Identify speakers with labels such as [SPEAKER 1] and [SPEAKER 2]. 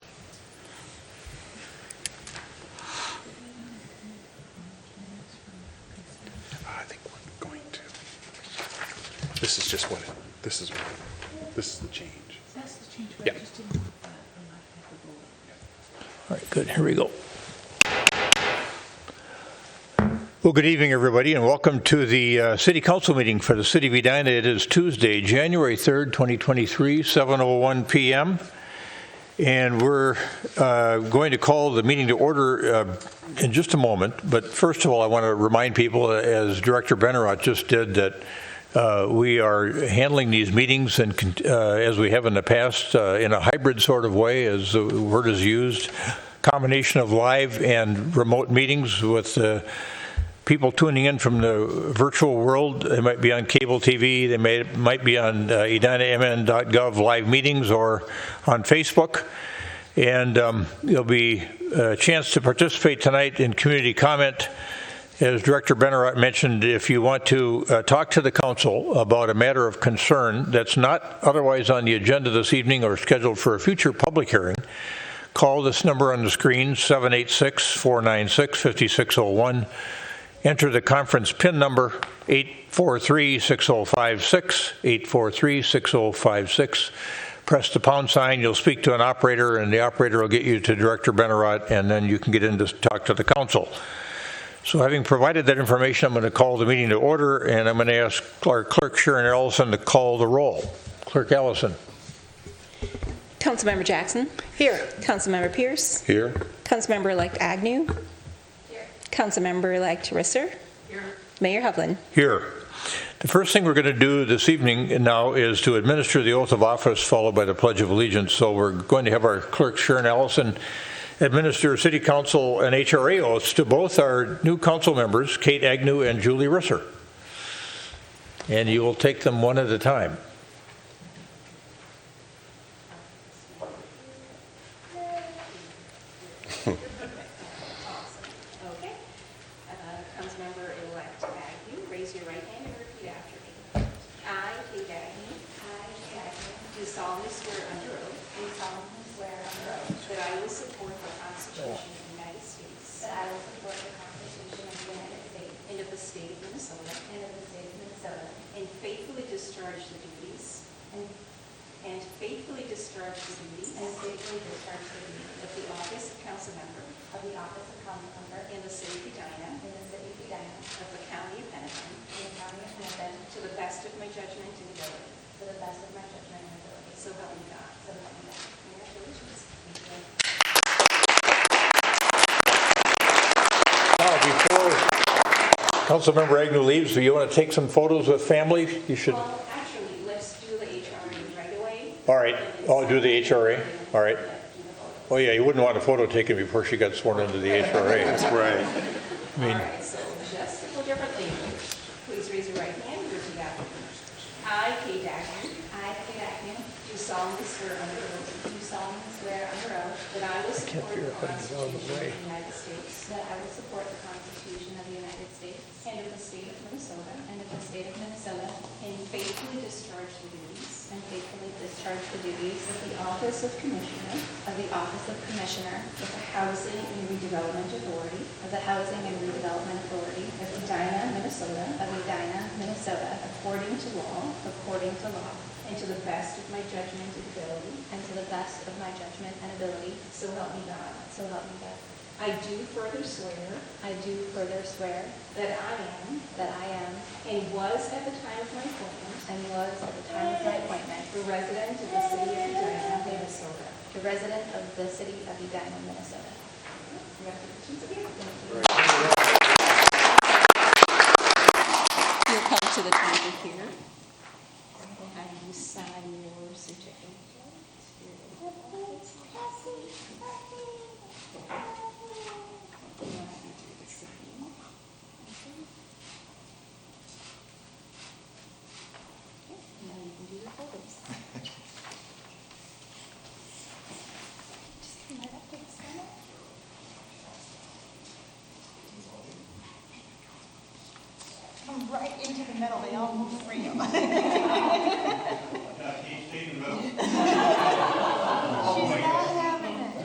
[SPEAKER 1] This is just when it, this is when, it- this is the change.
[SPEAKER 2] That's the change,
[SPEAKER 1] Yeah.
[SPEAKER 2] but I just didn't want that on my paperwork.
[SPEAKER 3] All right, good, here we go.
[SPEAKER 4] Well, good evening, everybody, and welcome to the uh, City Council meeting for the City of Edina. It is Tuesday, January 3rd, 2023, 7:01 PM. And we're uh, going to call the meeting to order uh, in just a moment. But first of all, I want to remind people, as Director Benarott just did, that uh, we are handling these meetings and con- uh, as we have in the past uh, in a hybrid sort of way, as the word is used, combination of live and remote meetings with uh, people tuning in from the virtual world. They might be on cable TV, they may, might be on uh, edinamn.gov live meetings or on Facebook. And um, there'll be a chance to participate tonight in community comment. As Director Benarott mentioned, if you want to uh, talk to the council about a matter of concern that's not otherwise on the agenda this evening or scheduled for a future public hearing, call this number on the screen, 786-496-5601. Enter the conference PIN number, 843-6056, 843-6056. Press the pound sign, you'll speak to an operator, and the operator will get you to Director Benarott, and then you can get in to talk to the council. So having provided that information, I'm going to call the meeting to order, and I'm going to ask our clerk Sharon Ellison to call the roll. Clerk Ellison?
[SPEAKER 5] Councilmember Jackson. Here. Councilmember Pierce.
[SPEAKER 1] Here?
[SPEAKER 5] Councilmember-elect Agnew. Here. Councilmember-elect Risser. Here. Mayor Hovland.
[SPEAKER 4] Here. The first thing we're going to do this evening now is to administer the oath of office followed by the Pledge of Allegiance. So we're going to have our clerk Sharon Allison administer city council and HRA oaths to both our new council members, Kate Agnew and Julie Risser. And you will take them one at a time.
[SPEAKER 5] Okay. Councilmember-elect Agnew, raise your right hand and repeat after me. I, Kate Agnew. I, Kate Agnew. Do solemnly swear under oath. Do solemnly swear under oath. That I will support the Constitution of the United States. That I will support the Constitution of the United States. And of the state of Minnesota. And of the state of Minnesota. And faithfully discharge the duties. And faithfully discharge the duties. And faithfully discharge the duties. Of the office of council member. Of the office of council member. In the city of Edina. In the city of Edina. Of the county of Hennepin. In the county of Hennepin. To the best of my judgment and ability. To the best of my judgment and ability. So help me God. So help me God. Congratulations.
[SPEAKER 4] Now, before Councilmember Agnew leaves, do you want to take some photos with family? You should, all
[SPEAKER 5] Well, actually, let's do the HRA right away.
[SPEAKER 4] right, I'll do the HRA, all right. Oh, yeah, you wouldn't want a photo taken before she got sworn into the HRA.
[SPEAKER 1] Right.
[SPEAKER 4] I mean-
[SPEAKER 5] All right, so just a little differently. Please raise your right hand and repeat after me. I, Kate Agnew. I, Kate Agnew. Do solemnly swear under oath. Do solemnly swear under oath. That I will support the Constitution of the United States. That I will support the Constitution of the United States. And of the state of Minnesota. And of the state of Minnesota. And faithfully discharge the duties. And faithfully discharge the duties. Of the office of Commissioner. Of the office of Commissioner. Of the Housing and Redevelopment Authority. Of the Housing and Redevelopment Authority. Of Edina, Minnesota. Of Edina, Minnesota. According to law. According to law. And to the best of my judgment and ability. And to the best of my judgment and ability. So help me God. So help me God. I do further swear. I do further swear. That I am. That I am. And was at the time of my appointment. And was at the time of my appointment. The resident of the city of Edina, Minnesota. The resident of the city of Edina, Minnesota. Congratulations again. Thank you. You'll come to the table here. And you sign your certificate. Now you can do your photos. Just come right up to the side.
[SPEAKER 6] Right into the middle, they all move for you.